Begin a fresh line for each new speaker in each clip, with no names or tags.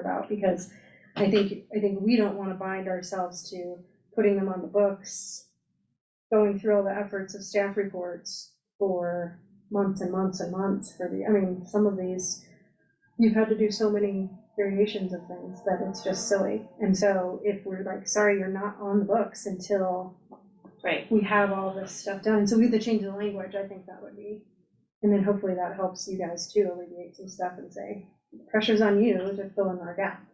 about, because I think, I think we don't wanna bind ourselves to putting them on the books, going through all the efforts of staff reports for months and months and months for the, I mean, some of these, you've had to do so many variations of things that it's just silly. And so if we're like, sorry, you're not on the books until
Right,
we have all this stuff done, so we have to change the language, I think that would be. And then hopefully that helps you guys too alleviate some stuff and say, pressure's on you to fill in our gaps.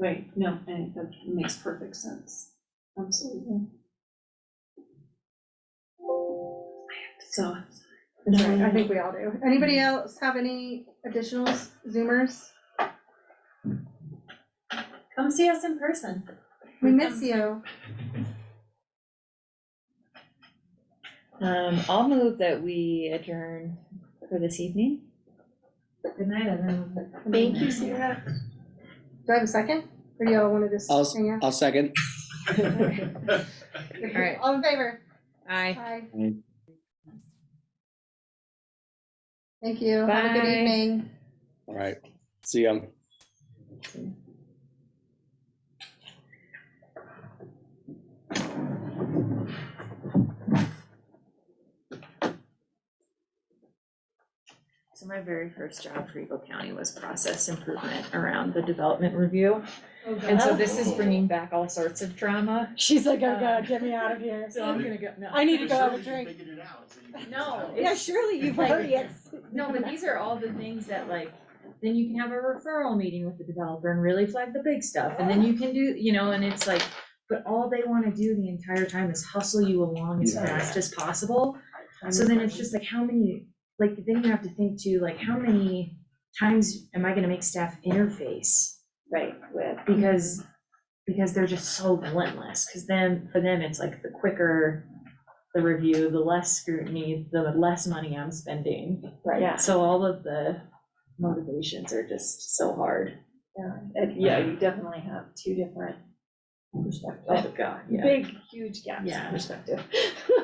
right, no, I think that makes perfect sense, absolutely. So,
Right,
Mm-hmm.
I think we all do. Anybody else have any additional zoomers?
come see us in person.
We miss you.
Um, I'll move that we adjourn for this evening.
Good night, everyone.
Thank you, Sarah. Do I have a second? Or do y'all wanna just
I'll s-
hang out?
I'll second.
right.
All in favor?
Aye.
Aye.
Aye.
Thank you. Have a good
Bye.
evening.
All right. See ya.
So my very first job for Eagle County was process improvement around the development review. And so this is bringing back all sorts of drama.
She's like, oh god, get me out of here.
So I'm gonna go, no.
I need to go have a
Surely you
drink.
figured it out, so you can
No,
tell.
Yeah, surely you've
Like-
already.
No, but these are all the things that like, then you can have a referral meeting with the developer and really flag the big stuff, and then you can do, you know, and it's like, but all they wanna do the entire time is hustle you along as
Yeah.
fast as possible. So then it's just like, how many, like, then you have to think too, like, how many times am I gonna make staff interface?
Right, with,
Because, because they're just so relentless, cause then, for them, it's like the quicker the review, the less scrutiny, the less money I'm spending.
right, yeah,
So all of the motivations are just so hard.
And, yeah, you definitely have two different perspectives,
Oh, God, yeah.
big, huge gaps in
Yeah.
perspective.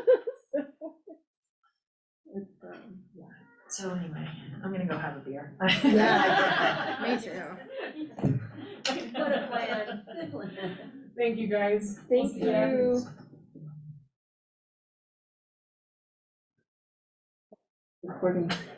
It's, um,
So anyway, I'm gonna go have a beer.
Yeah.
Me too.
What a plan. Thank you, guys.
Thank you.
Recording.